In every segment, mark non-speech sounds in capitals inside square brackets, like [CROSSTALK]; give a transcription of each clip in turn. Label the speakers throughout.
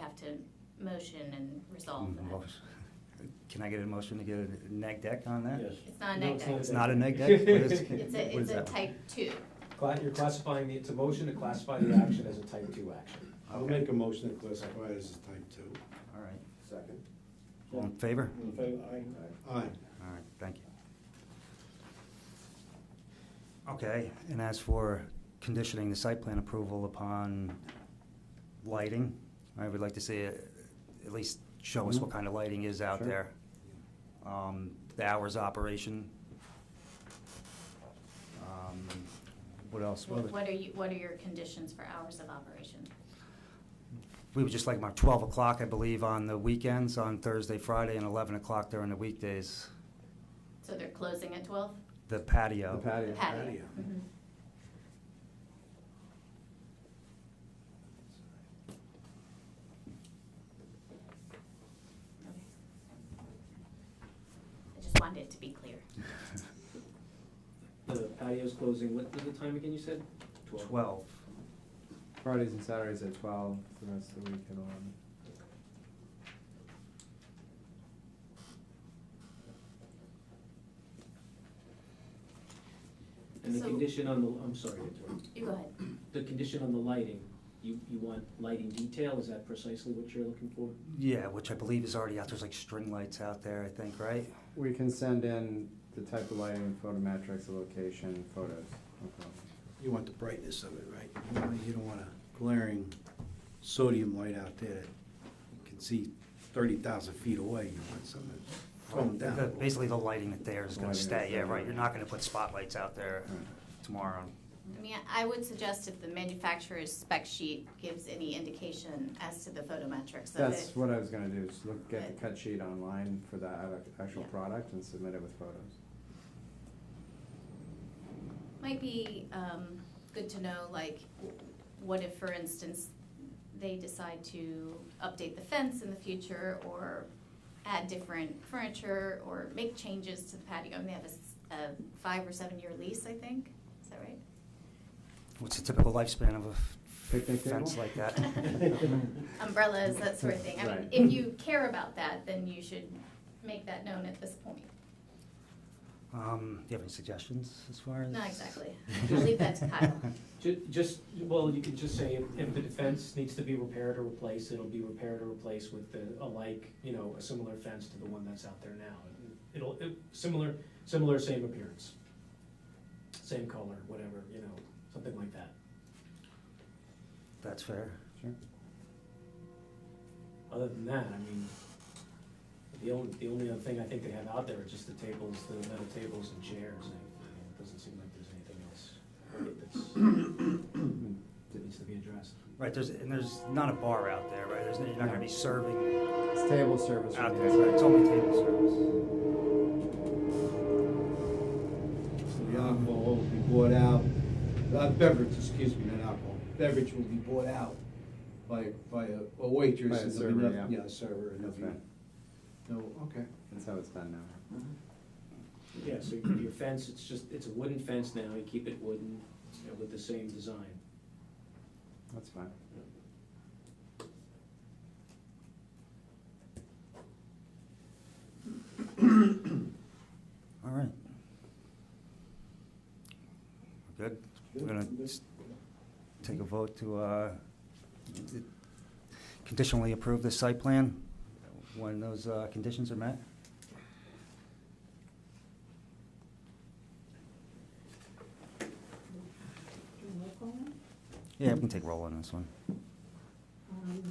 Speaker 1: have to motion and resolve that.
Speaker 2: Motion- Mm, [LAUGHS] Can I get a motion to get a neg deck on that?
Speaker 3: Yes.
Speaker 1: It's not a
Speaker 3: No,
Speaker 1: neg deck.
Speaker 2: It's not a neg deck? What is-
Speaker 1: It's
Speaker 2: [LAUGHS]
Speaker 1: a,
Speaker 2: what
Speaker 1: it's
Speaker 2: is
Speaker 1: a
Speaker 2: that?
Speaker 1: type two.
Speaker 4: Cla- You're classifying the, it's a motion to classify the action as a type two action.
Speaker 5: I'll make a motion to classify it as a type two.
Speaker 2: All right.
Speaker 6: Second.
Speaker 2: All in favor?
Speaker 3: In favor, aye.
Speaker 5: Aye.
Speaker 2: All right, thank you. Okay, and as for conditioning the site plan approval upon lighting, I would like to see, it- at least show us what kind of lighting is out
Speaker 3: Sure.
Speaker 2: there. Um, The hours of operation. Um, What else? Well,
Speaker 1: What are you, what are your conditions for hours of operation?
Speaker 2: We would just like about 12 o'clock, I believe, on the weekends, on Thursday, Friday, and 11 o'clock during the weekdays.
Speaker 1: So they're closing at twelve?
Speaker 2: The patio.
Speaker 3: The patio.
Speaker 1: Patio.
Speaker 5: patio.
Speaker 1: Mhm. Okay. I just wanted it to be clear.
Speaker 6: The patio's closing, what was the time again you said?
Speaker 2: 12.
Speaker 3: Fridays and Saturdays at twelve, the rest of the week at eleven.
Speaker 6: And the
Speaker 1: So-
Speaker 6: condition on the, I'm sorry, to interrupt.
Speaker 1: You go ahead.
Speaker 6: the condition on the lighting, you, you want lighting detail, is that precisely what you're looking for?
Speaker 2: Yeah, which I believe is already out. There's like string lights out there, I think, right?
Speaker 3: We can send in the type of lighting, photometrics, the location, photos, no problem.
Speaker 5: You want the brightness of it, right? You don't- You don't want a glaring sodium light out there that you can see thirty thousand feet away. You want something that's toned down. a
Speaker 2: The-
Speaker 5: little.
Speaker 2: Basically, the lighting that there is
Speaker 3: The
Speaker 2: gonna
Speaker 3: Oh, lighting
Speaker 2: stay,
Speaker 3: is
Speaker 2: yeah,
Speaker 3: there.
Speaker 2: right. You're not gonna put spotlights out there
Speaker 3: Right.
Speaker 2: tomorrow.
Speaker 1: I mean, I would suggest if the manufacturer's spec sheet gives any indication as to the photometrics of it.
Speaker 3: That's what I was gonna do, is look, get
Speaker 1: Good.
Speaker 3: the cut sheet online for the ac- actual
Speaker 1: Yeah.
Speaker 3: product and submit it with photos.
Speaker 1: Might be um, good to know, like, w- what if, for instance, they decide to update the fence in the future or add different furniture or make changes to the patio? And they have a s- a five or seven-year lease, I think, is that right?
Speaker 2: What's the typical lifespan of a f-
Speaker 3: Picnic table?
Speaker 2: fence like
Speaker 3: [LAUGHS]
Speaker 2: that?
Speaker 1: Umbrellas, that sort of thing. I mean,
Speaker 3: Right.
Speaker 1: if you care about that, then you should make that known at this point.
Speaker 2: Um, do you have any suggestions as far as?
Speaker 1: Not
Speaker 3: [LAUGHS]
Speaker 1: exactly. I'll leave that to Kyle.
Speaker 6: Ju- just, well, you could just say if, if the fence needs to be repaired or replaced, it'll be repaired or replaced with the, a like, you know, a similar fence to the one that's out there now. It'll, it, similar, similar, same appearance. Same color, whatever, you know, something like that.
Speaker 2: [LAUGHS] That's fair.
Speaker 3: Sure.
Speaker 6: Other than that, I mean, the only, the only other thing I think they have out there are just the tables, the metal tables and chairs. I mean, It doesn't seem like there's anything else that's, that needs to be addressed.
Speaker 2: Right, there's, and there's not a bar out there, right? There's, you're not gonna be serving
Speaker 3: It's table service.
Speaker 2: out
Speaker 3: for
Speaker 2: there,
Speaker 3: the-
Speaker 2: right? It's only table service.
Speaker 5: So the alcohol will be bought out, uh, beverage, excuse me, not alcohol, beverage will be bought out by, by a a waitress.
Speaker 3: By a
Speaker 5: and there'll
Speaker 3: server,
Speaker 5: be
Speaker 3: yeah.
Speaker 5: nothing- Yeah, a server, and there'll
Speaker 3: That's
Speaker 5: be,
Speaker 3: right.
Speaker 5: no, okay.
Speaker 3: That's how it's done now.
Speaker 6: Yeah, so your- your fence, it's just, it's a wooden fence now, you keep it wooden, you know, with the same design.
Speaker 3: That's fine.
Speaker 2: All right. We're Good? We're gonna s- take a vote to uh, d- conditionally approve the site plan when those uh, conditions are met? Yeah, we can take roll on this one.
Speaker 7: Um,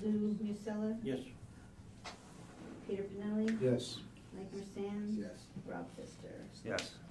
Speaker 7: Here, Lou Musella,
Speaker 3: Yes.
Speaker 7: Peter Benelli,
Speaker 5: Yes.
Speaker 7: Mike Mersan,
Speaker 5: Yes.
Speaker 7: Rob Fister.
Speaker 2: Yes.